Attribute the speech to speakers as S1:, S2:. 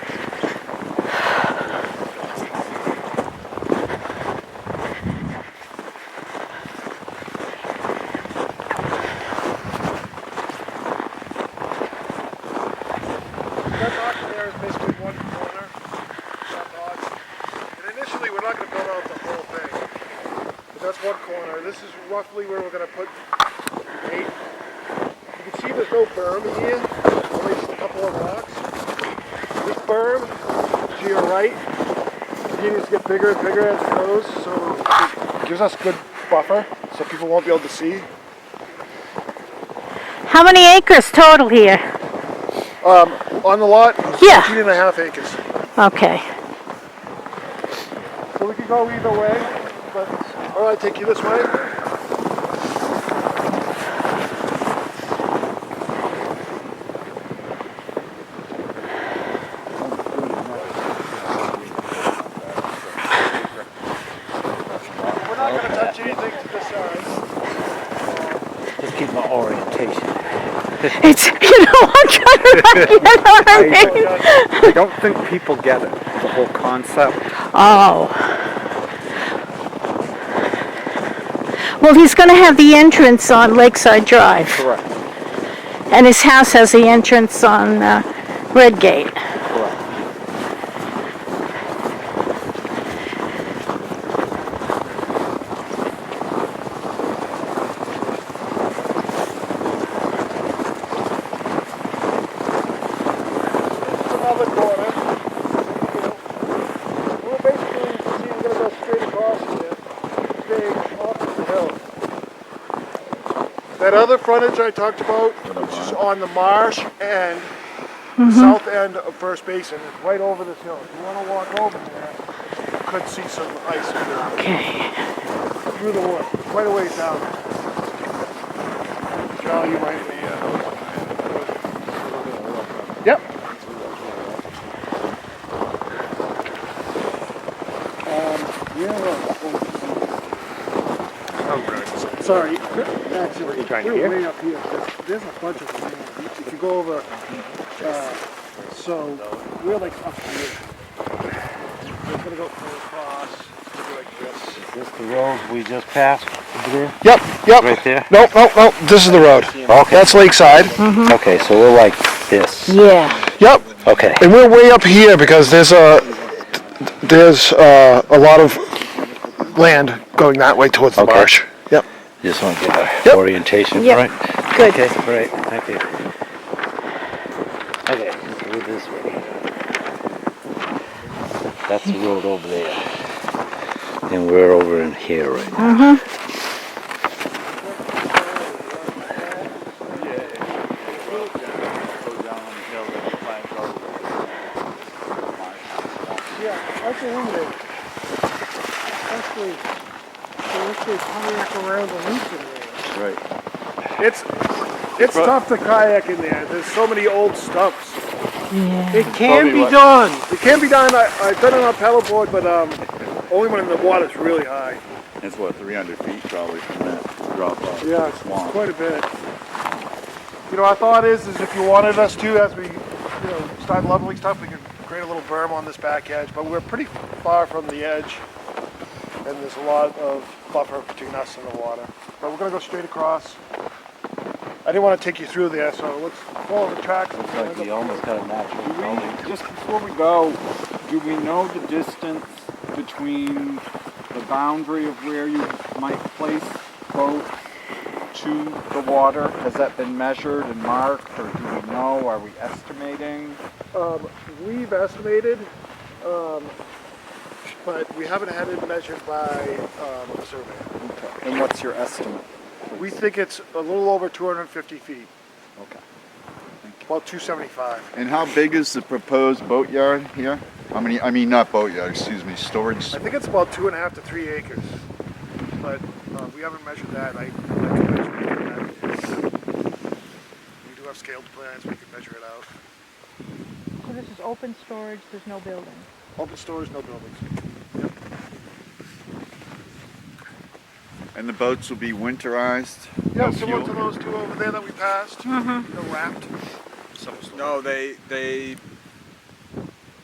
S1: four corner. This is roughly where we're gonna put bait. You can see there's no berm here, only just a couple of rocks. This berm to your right continues to get bigger and bigger as it goes, so it gives us good buffer, so people won't be able to see.
S2: How many acres total here?
S1: On the lot,
S2: Yeah.
S1: 15 and a half acres.
S2: Okay.
S1: So we could go either way, but all right, take you this way. We're not going to touch anything to this uh, side.
S3: Just keep my orientation.
S2: It's, you know, I'm trying to like, get what I mean?
S3: I don't think people get it, the whole concept.
S2: Oh. Well, he's gonna have the entrance on Lakeside Drive,
S3: Correct,
S2: and his house has the entrance on, uh, Redgate.
S3: correct.
S1: It's another corner. You know, We're basically going to go straight across here, stay off of the hill. That other frontage I talked about, which is on the marsh and south end of First Basin, is right over this hill. If you want to walk over there, you could see some ice through-
S2: Okay.
S1: through the wood, quite a ways down. Charlie, you might be. uh, Yep. Sorry, actually,
S3: trying
S1: we're
S3: here?
S1: way up here. There's- There's a bunch of them. here. If you go over, uh, so we're like up here. We're gonna go across, go like this.
S3: Is this the road we just passed over there?
S1: Yep, yep.
S3: Right there?
S1: Nope, nope, nope. This is the road.
S3: Okay.
S1: That's Lakeside.
S3: Okay, so we're like this.
S2: Yeah,
S1: Yep.
S3: Okay.
S1: And we're way up here because there's a there's uh, a lot of land going that way towards the
S3: Okay.
S1: marsh. Yep.
S3: Just want to get our
S1: Yep.
S3: orientation
S2: Yep.
S3: right.
S2: good.
S3: Okay, great. Thank you. Okay, let's go this way. That's the road over there. And we're over in here right now.
S1: Yeah, that's eliminated. Actually, actually kayak around the loop in there.
S3: Right.
S1: It's it's tough to kayak in there. There's so many old stumps.
S2: Yeah.
S4: Can be done.
S1: It can be done. I, I've done it on paddleboard, but um, only when the water's really high.
S5: It's what, 300 feet probably from that drop off.
S1: Yeah, it's
S5: Swamp.
S1: quite a bit. You know, our thought is, is if you wanted us to, as we, you know, start leveling stuff, we could create a little berm on this back edge, but we're pretty far from the edge, and there's a lot of buffer between us and the water. But we're gonna go straight across. I didn't want to take you through there, so let's follow the tracks.
S3: Looks like we almost got a natural gully.
S4: Just before we go, do we know the distance between the boundary of where you might place boats to the water? Has that been measured and marked, or do we know? Are we estimating?
S1: Um, we've estimated, um, but we haven't had it measured by um, a surveyor.
S4: And what's your estimate?
S1: We think it's a little over 250 feet,
S4: Okay.
S1: about 275.
S5: And how big is the proposed boatyard here? How many, I mean, not boatyard, excuse me, storage.
S1: I think it's about two and a half to three acres, but uh, we haven't measured that. I, I can measure it. We do have scaled plans. We can measure it out.
S6: So this is open storage, there's no building.
S1: Open stores, no buildings.
S5: And the boats will be winterized?
S1: Yeah,
S5: No
S1: similar
S5: fuel?
S1: to those two over there that we passed. They're wrapped.
S4: No, they they